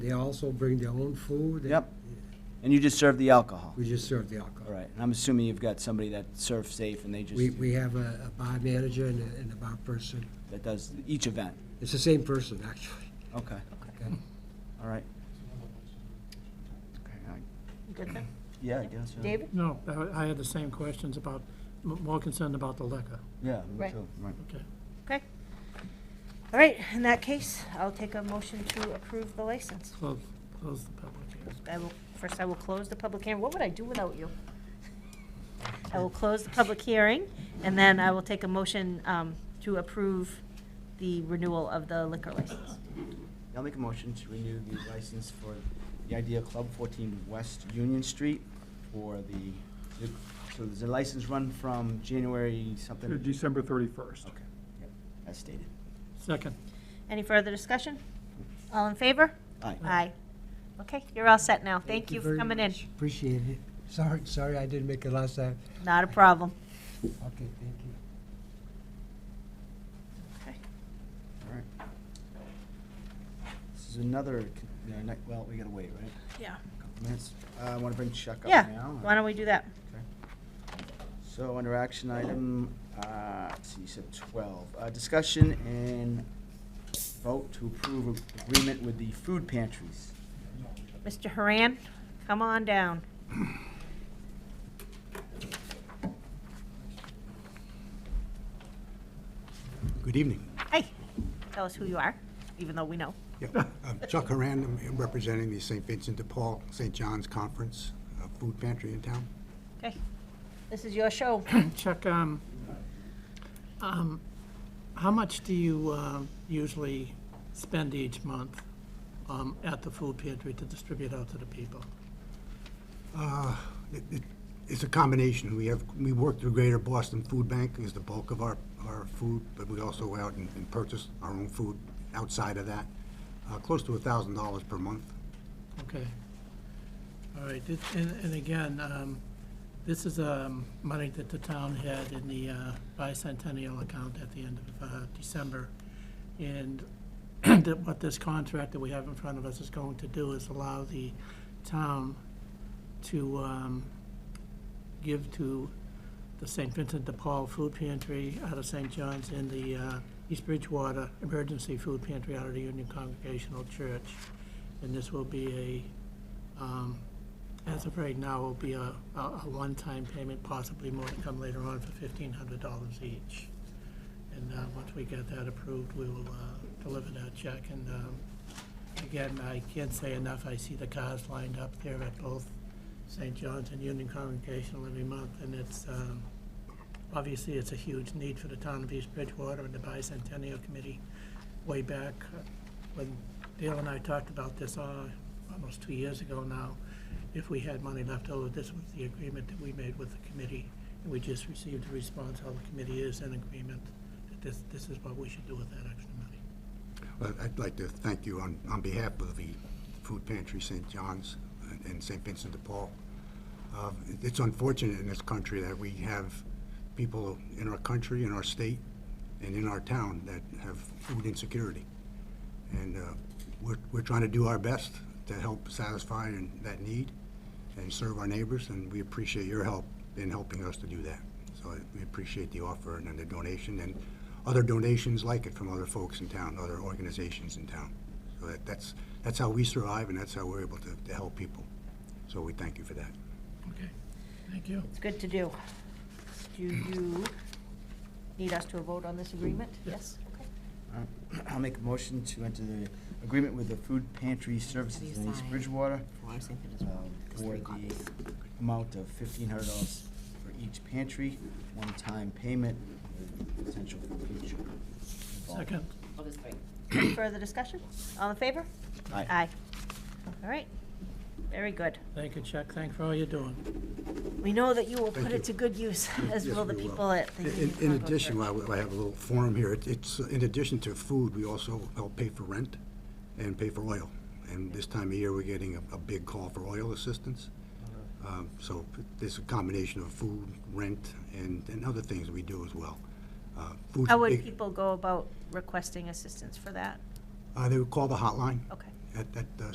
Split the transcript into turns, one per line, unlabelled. They also bring their own food.
Yep. And you just serve the alcohol?
We just serve the alcohol.
All right, and I'm assuming you've got somebody that serves safe and they just,
We, we have a a bar manager and a, and a bar person.
that does each event?
It's the same person, actually.
Okay,
Okay.
all right. Okay, I-
Good then.
Yeah, I guess, yeah.
David?
No, I- I had the same questions about, m- more concerned about the liquor,
Yeah, me
Right.
too, right.
okay.
Okay. All right, in that case, I'll take a motion to approve the license.
Close, close the public hearing.
I will, first I will close the public hearing. What would I do without you? I will close the public hearing, and then I will take a motion um, to approve the renewal of the liquor license.
I'll make a motion to renew the license for the Idea Club, 14 West Union Street, for the, so there's a license run from January something?
Uh, December 31st.
Okay, yep, as stated.
Second,
Any further discussion? All in favor?
Aye.
Aye. Okay, you're all set now. Thank you for
very
coming in.
much. Appreciate it. Sorry, sorry I didn't make it last time.
Not a problem.
Okay, thank you.
Okay.
All right. This is another, con- no, not- well, we gotta wait, right?
Yeah.
Couple minutes. Uh, I wanna bring Chuck up
Yeah,
now.
why don't we do that?
So under action item, uh, let's see, you said 12, uh, discussion and vote to approve agreement with the food pantries.
Mr. Haran, come on down.
Good evening.
Hey, tell us who you are, even though we know.
Yeah, I'm Chuck Haran, I'm representing the St. Vincent de Paul, St. John's Conference uh, Food Pantry in town.
Okay, this is your show.
Chuck, um, um, how much do you uh, usually spend each month um, at the food pantry to distribute out to the people?
It- it- It's a combination. We have, we work through Greater Boston Food Bank is the bulk of our, our food, but we also go out and and purchase our own food outside of that, uh, close to $1,000 per month.
Okay. All right, this- and, and again, um, this is, um, money that the town had in the uh, bicentennial account at the end of, uh, December. And that what this contract that we have in front of us is going to do is allow the town to, um, give to the St. Vincent de Paul Food Pantry out of St. John's and the uh, East Bridgewater Emergency Food Pantry out of the Union Congregational Church. And this will be a, um, as of right now, will be a, a a one-time payment, possibly more to come later on for fifteen hundred dollars each. And uh, once we get that approved, we will uh, deliver that check. And um, again, I can't say enough, I see the cars lined up there at both St. John's and Union Congregational every month, and it's, um, obviously, it's a huge need for the town of East Bridgewater and the Bicentennial Committee way back uh, when Dale and I talked about this uh, almost two years ago now. If we had money left over, this was the agreement that we made with the committee, and we just received a response how the committee is in agreement that this, this is what we should do with that extra money.
Well, I'd like to thank you on, on behalf of the Food Pantry St. John's and St. Vincent de Paul. Uh, It's unfortunate in this country that we have people in our country, in our state, and in our town that have food insecurity. And uh, we're, we're trying to do our best to help satisfy and- that need and serve our neighbors, and we appreciate your help in helping us to do that. So I- we appreciate the offer and then the donation, and other donations like it from other folks in town, other organizations in town. So that, that's, that's how we survive, and that's how we're able to, to help people. So we thank you for that.
Okay, thank you.
It's good to do. Do you need us to vote on this agreement? Yes. Okay.
All right. Uh, I'll make a motion to enter the agreement with the food pantry services in East Bridgewater uh, for the amount of fifteen hundred dollars for each pantry, one-time payment with potential for future. involvement.
Second,
Any Further discussion? All in favor?
Aye.
Aye. All right, very good.
thank you, Chuck, thank you for all you're doing.
We know that you will
Thank
put
you.
it to good use, as
Yes,
will the
we
people at the
In-
Union
In
Congo
addition,
Church.
I I have a little form here. It- It's, in addition to food, we also help pay for rent and pay for oil. And this time of year, we're getting a- a big call for oil assistance. Um, So there's a combination of food, rent, and and other things we do as well. Uh, food's
How
a
would
big-
people go about requesting assistance for that?
uh, They would call the hotline
Okay.
at at, uh,